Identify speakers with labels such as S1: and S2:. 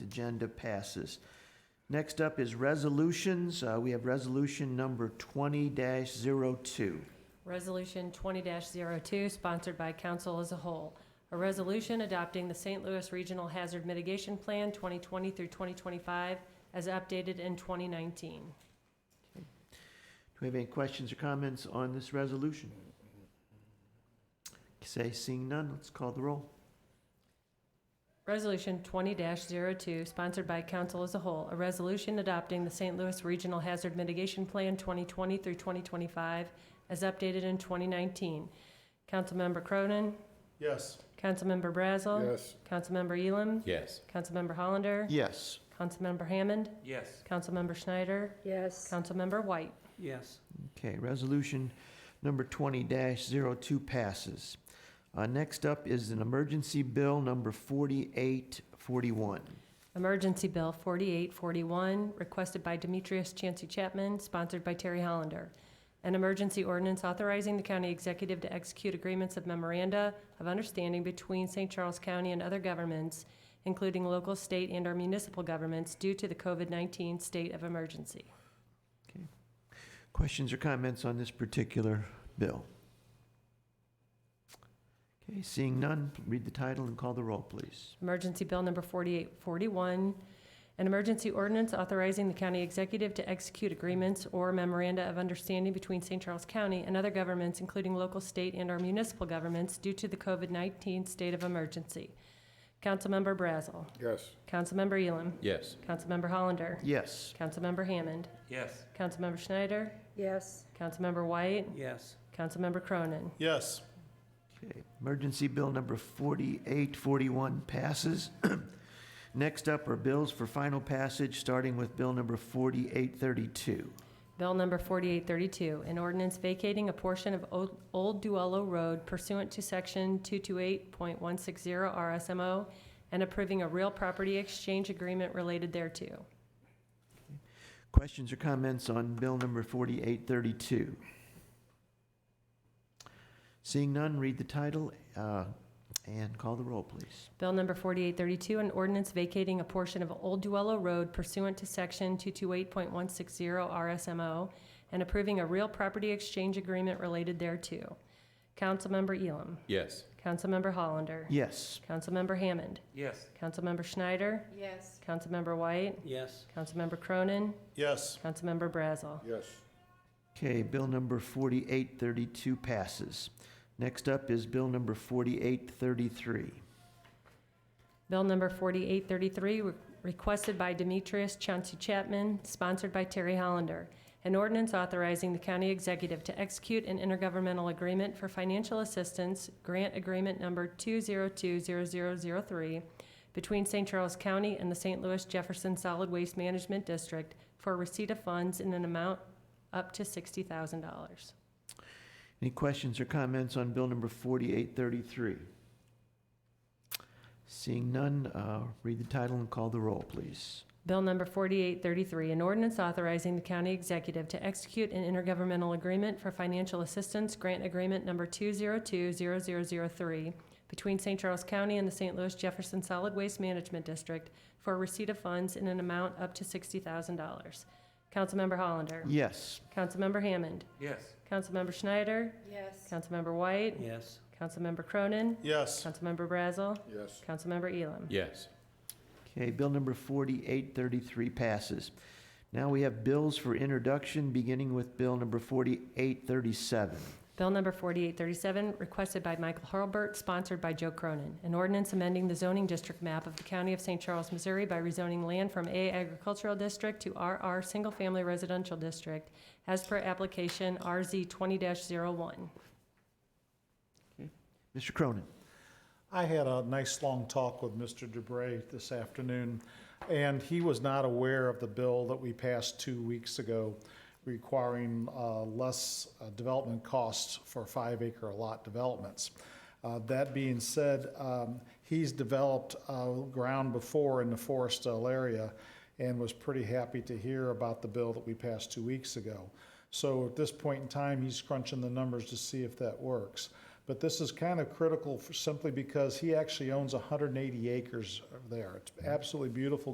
S1: agenda passes. Next up is resolutions. Uh, We have resolution number 20-02.
S2: Resolution 20-02, sponsored by council as a whole. A resolution adopting the St. Louis Regional Hazard Mitigation Plan 2020 through 2025 as updated in 2019.
S1: Do we have any questions or comments on this resolution? Say, seeing none, let's call the roll.
S2: Resolution 20-02, sponsored by council as a whole. A resolution adopting the St. Louis Regional Hazard Mitigation Plan 2020 through 2025 as updated in 2019. Councilmember Cronin,
S3: Yes.
S2: Councilmember Brazel.
S3: Yes.
S2: Councilmember Elam.
S4: Yes.
S2: Councilmember Hollander.
S1: Yes.
S2: Councilmember Hammond.
S5: Yes.
S2: Councilmember Schneider.
S6: yes,
S2: Councilmember White.
S5: Yes.
S1: Okay, resolution number 20-02 passes. Uh, Next up is an emergency bill number 4841.
S2: Emergency Bill 4841, requested by Demetrius Chancy Chapman, sponsored by Terry Hollander. An emergency ordinance authorizing the county executive to execute agreements of memoranda of understanding between St. Charles County and other governments, including local, state, and or municipal governments due to the COVID-19 state of emergency.
S1: Questions or comments on this particular bill? Okay, seeing none, read the title and call the roll, please.
S2: Emergency Bill Number 4841, an emergency ordinance authorizing the county executive to execute agreements or memoranda of understanding between St. Charles County and other governments, including local, state, and/or municipal governments due to the COVID-19 state of emergency. Councilmember Brazel.
S3: Yes.
S2: Councilmember Elam.
S4: Yes.
S2: Councilmember Hollander.
S1: Yes.
S2: Councilmember Hammond.
S5: Yes.
S2: Councilmember Schneider.
S6: yes,
S2: Councilmember White.
S5: Yes.
S2: Councilmember Cronin.
S3: Yes.
S1: Okay, emergency bill number 4841 passes. Next up are bills for final passage, starting with bill number 4832.
S2: Bill number 4832, an ordinance vacating a portion of Old- Old Duello Road pursuant to Section 228.160 RSMO and approving a real property exchange agreement related thereto.
S1: Questions or comments on bill number 4832? Seeing none, read the title uh, and call the roll, please.
S2: Bill number 4832, an ordinance vacating a portion of Old Duello Road pursuant to Section 228.160 RSMO and approving a real property exchange agreement related thereto. Councilmember Elam.
S4: Yes.
S2: Councilmember Hollander.
S1: Yes.
S2: Councilmember Hammond.
S5: Yes.
S2: Councilmember Schneider.
S6: yes,
S2: Councilmember White.
S5: Yes.
S2: Councilmember Cronin.
S3: Yes.
S2: Councilmember Brazel.
S3: Yes.
S1: Okay, bill number 4832 passes. Next up is bill number 4833.
S2: Bill number 4833, re- requested by Demetrius Chauncey Chapman, sponsored by Terry Hollander. An ordinance authorizing the county executive to execute an intergovernmental agreement for financial assistance, grant agreement number 2020003, between St. Charles County and the St. Louis Jefferson Solid Waste Management District for receipt of funds in an amount up to $60,000.
S1: Any questions or comments on bill number 4833? Seeing none, uh, read the title and call the roll, please.
S2: Bill number 4833, an ordinance authorizing the county executive to execute an intergovernmental agreement for financial assistance, grant agreement number 2020003, between St. Charles County and the St. Louis Jefferson Solid Waste Management District for receipt of funds in an amount up to $60,000. Councilmember Hollander.
S1: Yes.
S2: Councilmember Hammond.
S5: Yes.
S2: Councilmember Schneider.
S6: yes,
S2: Councilmember White.
S5: Yes.
S2: Councilmember Cronin.
S3: Yes.
S2: Councilmember Brazel.
S3: Yes.
S2: Councilmember Elam.
S4: Yes.
S1: Okay, bill number 4833 passes. Now we have bills for introduction, beginning with bill number 4837.
S2: Bill number 4837, requested by Michael Hurlbert, sponsored by Joe Cronin. An ordinance amending the zoning district map of the County of St. Charles, Missouri by rezoning land from A Agricultural District to RR Single Family Residential District as per application RZ 20-01.
S1: Mr. Cronin?
S3: I had a nice long talk with Mr. DeBrey this afternoon, and he was not aware of the bill that we passed two weeks ago requiring uh, less uh, development costs for five acre lot developments. Uh, That being said, um, he's developed uh, ground before in the Forestdale area and was pretty happy to hear about the bill that we passed two weeks ago. So at this point in time, he's crunching the numbers to see if that works. But this is kind of critical for- simply because he actually owns 180 acres there. It's absolutely beautiful